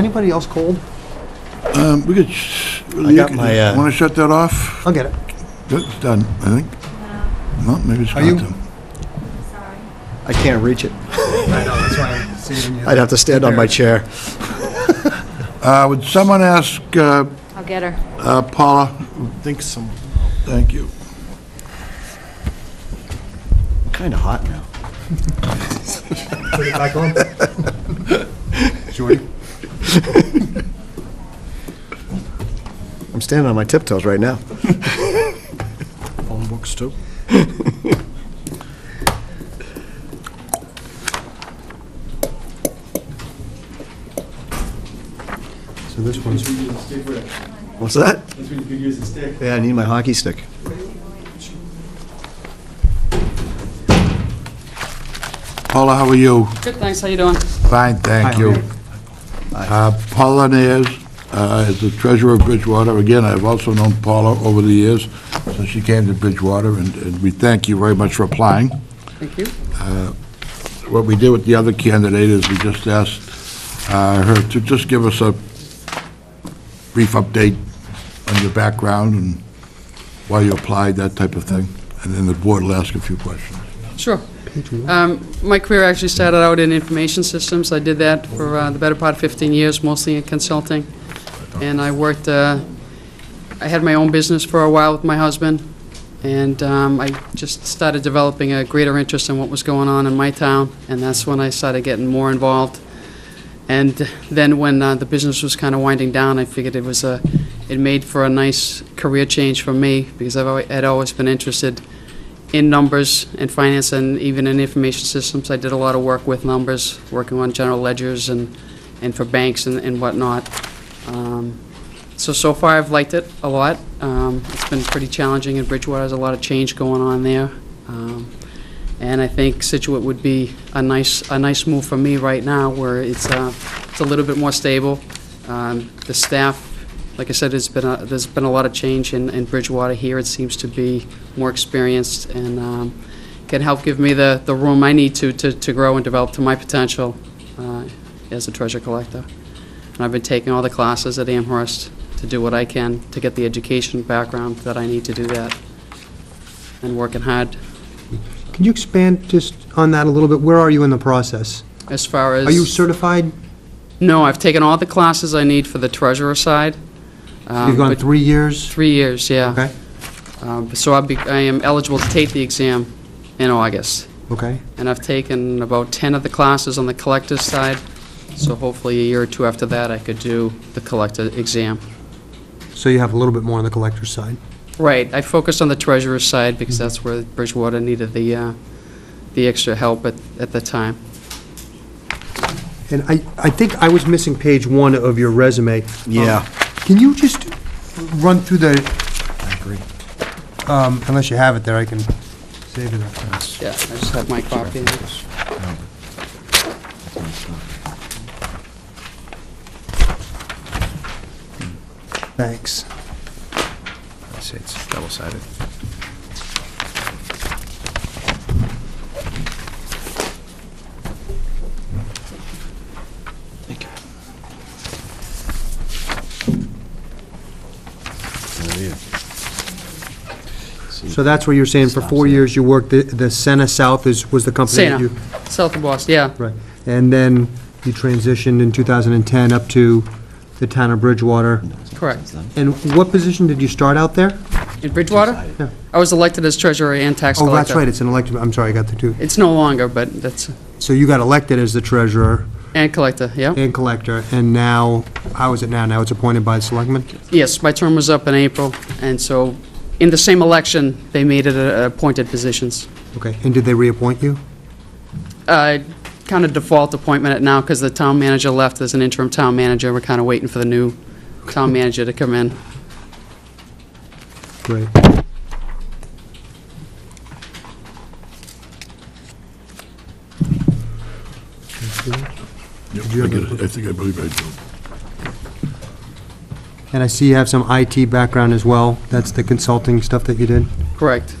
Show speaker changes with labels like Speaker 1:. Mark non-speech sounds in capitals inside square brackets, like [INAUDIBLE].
Speaker 1: Anybody else cold?
Speaker 2: Um, we could, sh- really, you
Speaker 3: got my, uh,
Speaker 2: could- wanna shut that off?
Speaker 1: I'll get it.
Speaker 2: That's done, I think. No, maybe it's
Speaker 1: Are
Speaker 2: not
Speaker 1: you-
Speaker 2: done.
Speaker 3: I can't reach it.
Speaker 1: [LAUGHS] I know, that's why I'm saving you.
Speaker 3: I'd have to stand on my chair.
Speaker 2: Uh, would someone ask, uh,
Speaker 4: I'll get her.
Speaker 2: uh, Paula?
Speaker 3: think some,
Speaker 2: Thank you.
Speaker 3: kind of hot now.
Speaker 1: Put it back on.
Speaker 3: [LAUGHS] I'm standing on my tiptoes
Speaker 1: [LAUGHS]
Speaker 3: right now. Phone books, too. So this one's, what's that?
Speaker 5: That's when you could use a stick.
Speaker 3: Yeah, I need my hockey stick.
Speaker 2: Paula, how are you?
Speaker 6: Good, thanks, how you doing?
Speaker 2: Fine, thank you. Uh, Paula Nares uh, is the treasurer of Bridgewater. Again, I've also known Paula over the years since she came to Bridgewater, and- and we thank you very much for applying. Uh,
Speaker 6: Thank you.
Speaker 2: What we did with the other candidate is we just asked uh, her to just give us a brief update on your background and why you applied, that type of thing, and then the board will ask a few questions.
Speaker 6: Sure. Um, My career actually started out in information systems. I did that for uh, the better part of 15 years, mostly in consulting. And I worked, uh, I had my own business for a while with my husband, and um, I just started developing a greater interest in what was going on in my town, and that's when I started getting more involved. And then when uh, the business was kind of winding down, I figured it was a, it made for a nice career change for me, because I've, alwa- had always been interested in numbers and finance and even in information systems. I did a lot of work with numbers, working on general ledgers and, and for banks and and whatnot. Um, So, so far, I've liked it a lot. Um, It's been pretty challenging in Bridgewater, there's a lot of change going on there. Um, And I think Situate would be a nice, a nice move for me right now, where it's, uh, it's a little bit more stable. Um, The staff like I said, it's been, a- there's been a lot of change in in Bridgewater here. It seems to be more experienced and um, can help give me the, the room I need to, to to grow and develop to my potential uh, as a treasure collector. And I've been taking all the classes at Amherst to do what I can to get the education background that I need to do that, and working hard
Speaker 1: Can you expand just on that a little bit? Where are you in the process?
Speaker 6: as far as...
Speaker 1: Are you certified?
Speaker 6: No, I've taken all the classes I need for the treasurer side. Um,
Speaker 1: You've gone Um, three years?
Speaker 6: Three years, yeah.
Speaker 1: Okay,
Speaker 6: Um, So I'll be, I am eligible to take the exam in August,
Speaker 1: okay.
Speaker 6: and I've taken about 10 of the classes on the collector's side, so hopefully a year or two after that, I could do the collector exam.
Speaker 1: So you have a little bit more on the collector's side.
Speaker 6: Right, I focused on the treasurer's side, because that's where Bridgewater needed the, uh, the extra help at, at the time.
Speaker 1: And I, I think I was missing page one of your resume. Um,
Speaker 3: Yeah.
Speaker 1: Can you just run through the... I agree. Unless you have it there, I can save it.
Speaker 6: Yeah, I just have my copy.
Speaker 1: Thanks.
Speaker 3: I'd say it's double-sided. Thank you.
Speaker 1: So that's where you're saying for four years you worked, the- the Senna South is, was the company that
Speaker 6: Santa,
Speaker 1: you...
Speaker 6: south of Boston, yeah.
Speaker 1: Right, and then you transitioned in 2010 up to the town of Bridgewater.
Speaker 6: Correct.
Speaker 1: And what position did you start out there?
Speaker 6: In Bridgewater?
Speaker 1: Yeah.
Speaker 6: I was elected as treasurer and tax
Speaker 1: Oh,
Speaker 6: collector.
Speaker 1: that's right, it's an elected, I'm sorry, I got the two.
Speaker 6: It's no longer, but that's,
Speaker 1: So you got elected as the treasurer
Speaker 6: and collector, yeah.
Speaker 1: and collector, and now, how is it now? Now it's appointed by the selectmen?
Speaker 6: Yes, my term was up in April, and so in the same election, they made it uh, appointed positions.
Speaker 1: Okay, and did they reappoint you?
Speaker 6: Kind of default appointment at now, because the town manager left as an interim town manager. We're kind of waiting for the new town manager to come in.
Speaker 1: Great.
Speaker 2: Yep,
Speaker 1: you
Speaker 2: I
Speaker 1: have a-
Speaker 2: get it. I think, I believe I do.
Speaker 1: And I see you have some IT background as well, that's the consulting stuff that you did?
Speaker 6: Correct.